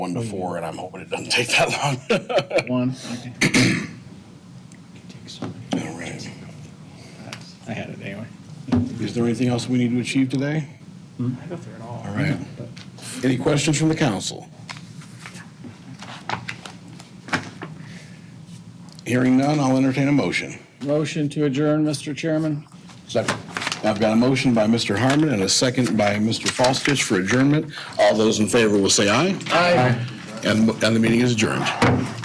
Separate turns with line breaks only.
one to four, and I'm hoping it doesn't take that long.
One, okay.
All right.
I had it anyway.
Is there anything else we need to achieve today?
Hmm? I go through it all.
All right. Any questions from the council? Hearing none, I'll entertain a motion.
Motion to adjourn, Mr. Chairman.
Second. I've got a motion by Mr. Harmon and a second by Mr. Falstich for adjournment. All those in favor will say aye. Aye. And, and the meeting is adjourned.